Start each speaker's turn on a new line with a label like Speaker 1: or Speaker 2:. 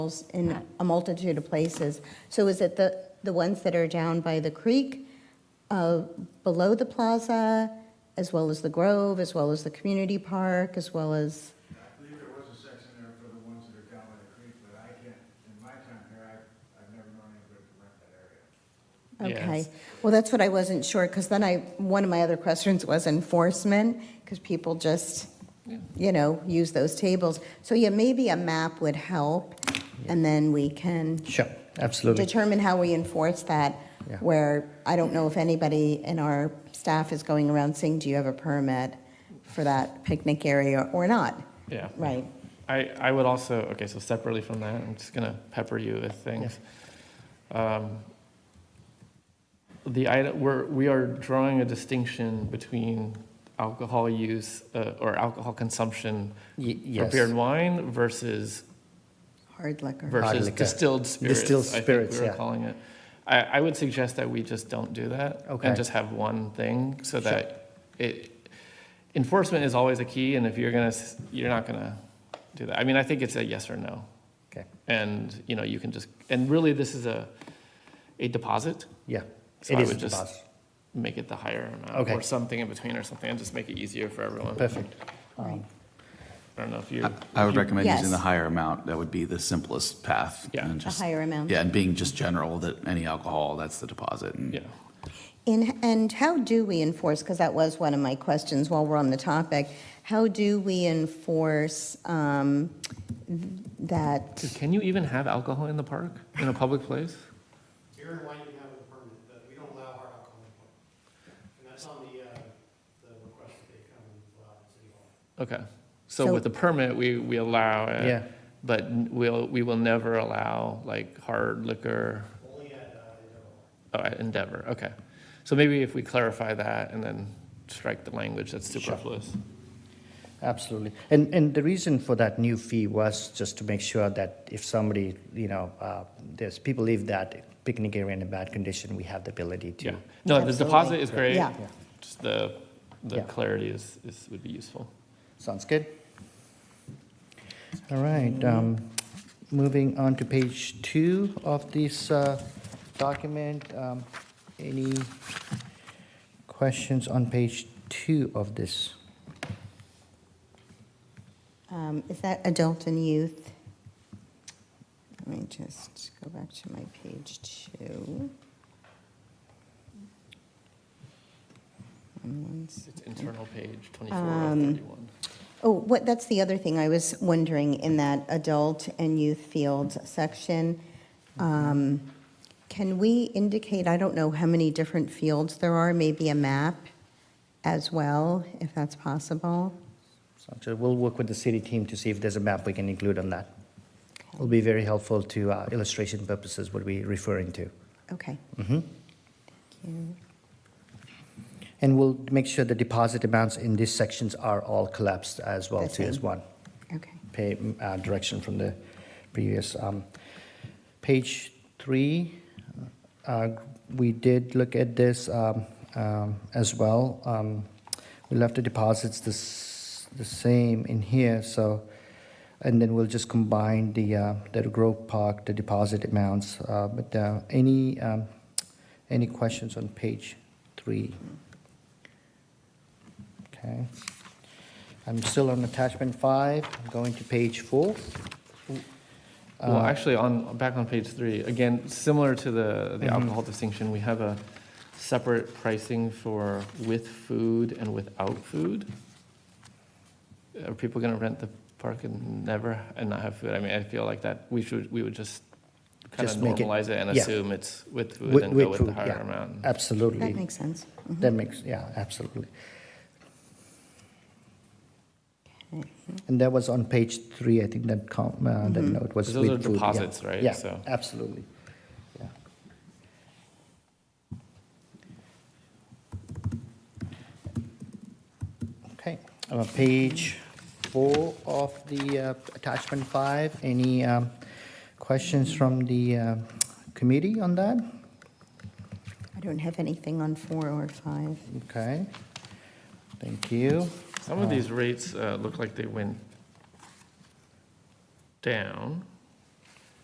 Speaker 1: animals in a multitude of places. So is it the, the ones that are down by the creek, uh, below the plaza, as well as the Grove, as well as the community park, as well as,
Speaker 2: I believe there was a section there for the ones that are down by the creek, but I can't, in my time here, I've, I've never known anybody to rent that area.
Speaker 1: okay.
Speaker 3: Yes.
Speaker 1: Well, that's what I wasn't sure, because then I, one of my other questions was enforcement, because people just, you know, use those tables. So yeah, maybe a map would help, and then we can.
Speaker 3: Sure, absolutely.
Speaker 1: determine how we enforce that,
Speaker 3: Yeah.
Speaker 1: where I don't know if anybody in our staff is going around saying, do you have a permit for that picnic area or not?
Speaker 4: Yeah.
Speaker 1: Right.
Speaker 4: I, I would also, okay, so separately from that, I'm just gonna pepper you with things. Um, The item, we're, we are drawing a distinction between alcohol use, uh, or alcohol consumption,
Speaker 3: Y- yes.
Speaker 4: prepared wine versus,
Speaker 1: Hard liquor.
Speaker 4: versus
Speaker 3: liquor.
Speaker 4: distilled spirits.
Speaker 3: Distilled
Speaker 4: I think
Speaker 3: spirits,
Speaker 4: we were
Speaker 3: yeah.
Speaker 4: calling it. I, I would suggest that we just don't do that.
Speaker 3: Okay.
Speaker 4: And just have one thing, so
Speaker 3: Sure.
Speaker 4: that it, enforcement is always a key, and if you're gonna, s- you're not gonna do that. I mean, I think it's a yes or no.
Speaker 3: Okay,
Speaker 4: and you know you can just and really this is a a deposit
Speaker 3: yeah.
Speaker 4: So
Speaker 3: It
Speaker 4: I
Speaker 3: is
Speaker 4: would
Speaker 3: a
Speaker 4: just-
Speaker 3: deposit.
Speaker 4: make it the higher amount
Speaker 3: Okay.
Speaker 4: or something in between or something and just make it easier for everyone
Speaker 3: Perfect. Uh,
Speaker 1: Right.
Speaker 4: i don't know if you
Speaker 5: I- I would recommend using the
Speaker 1: Yes.
Speaker 5: higher amount. That would be the simplest path.
Speaker 4: Yeah.
Speaker 5: and
Speaker 4: The
Speaker 5: just-
Speaker 1: higher amount.
Speaker 5: Yeah, and being just general that any alcohol, that's the deposit. and-
Speaker 4: yeah
Speaker 1: And, and how do we enforce, because that was one of my questions while we're on the topic, how do we enforce um, that?
Speaker 4: Dude, can you even have alcohol in the park in a public place
Speaker 6: Beer and wine you can have with a permit, but we don't allow hard alcohol in public. And that's on the, uh, the request that they come and fill out at City Hall.
Speaker 4: okay so,
Speaker 1: So-
Speaker 4: with the permit we we allow it
Speaker 3: Yeah.
Speaker 4: but n- we'll we will never allow like hard liquor
Speaker 6: Only at, uh, Endeavor Hall.
Speaker 4: oh, at endeavor okay so maybe if we clarify that and then strike the language that's superfluous
Speaker 3: Absolutely. And, and the reason for that new fee was just to make sure that if somebody, you know, uh, there's, people leave that picnic area in a bad condition, we have the ability to.
Speaker 4: yeah no the
Speaker 1: Absolutely.
Speaker 4: deposit is great
Speaker 1: Yeah.
Speaker 4: just the, the
Speaker 3: Yeah.
Speaker 4: clarity is, is, would be useful.
Speaker 3: Sounds good. All right, um, moving on to page two of this, uh, document. Um, any questions on page two of this?
Speaker 1: Um, Is that adult and youth? Let me just go back to my page two. And one s-
Speaker 4: It's internal page 24
Speaker 1: Um,
Speaker 4: of 31.
Speaker 1: Oh, what, that's the other thing I was wondering in that adult and youth field section. Um, Can we indicate, I don't know how many different fields there are, maybe a map as well, if that's possible?
Speaker 3: So we'll work with the city team to see if there's a map we can include on that. It'll be very helpful to uh, illustration purposes, what we're referring to.
Speaker 1: Okay.
Speaker 3: Mhm.
Speaker 1: Thank you.
Speaker 3: And we'll make sure the deposit amounts in these sections are all collapsed as well
Speaker 1: The
Speaker 3: too, as
Speaker 1: same.
Speaker 3: one
Speaker 1: Okay.
Speaker 3: pay, uh, direction from the previous. um, Page three, uh, we did look at this um, um, as well. Um, We left the deposits the s- the same in here, so, and then we'll just combine the, uh, the Grove Park, the deposit amounts. uh, But uh, any, um, any questions on page three? Okay. I'm still on attachment five, I'm going to page four.
Speaker 4: Well,
Speaker 3: Uh,
Speaker 4: actually, on, back on page three, again, similar to the,
Speaker 3: Mm-hmm.
Speaker 4: the alcohol distinction, we have a separate pricing for with food and without food. Are people gonna rent the park and never, and not have food? I mean, I feel like that, we should, we would just kind of
Speaker 3: Just make it-
Speaker 4: normalize it and
Speaker 3: yeah.
Speaker 4: assume it's with
Speaker 3: With-
Speaker 4: food and
Speaker 3: with
Speaker 4: go with the
Speaker 3: food,
Speaker 4: higher
Speaker 3: yeah.
Speaker 4: amount.
Speaker 1: That
Speaker 3: Absolutely.
Speaker 1: makes sense. Mm-hmm.
Speaker 3: That makes, yeah, absolutely. And that was on page three, I think that com, uh, that
Speaker 1: Mm-hmm.
Speaker 3: note was
Speaker 4: Because those
Speaker 3: with
Speaker 4: are
Speaker 3: food, yeah.
Speaker 4: deposits, right?
Speaker 3: Yeah,
Speaker 4: So-
Speaker 3: absolutely. Yeah. Okay, uh, page four of the uh, attachment five, any um, questions from the uh, committee on that?
Speaker 1: I don't have anything on four or five.
Speaker 3: Okay, thank you. Uh-huh.
Speaker 4: Some of these rates uh, look like they went down.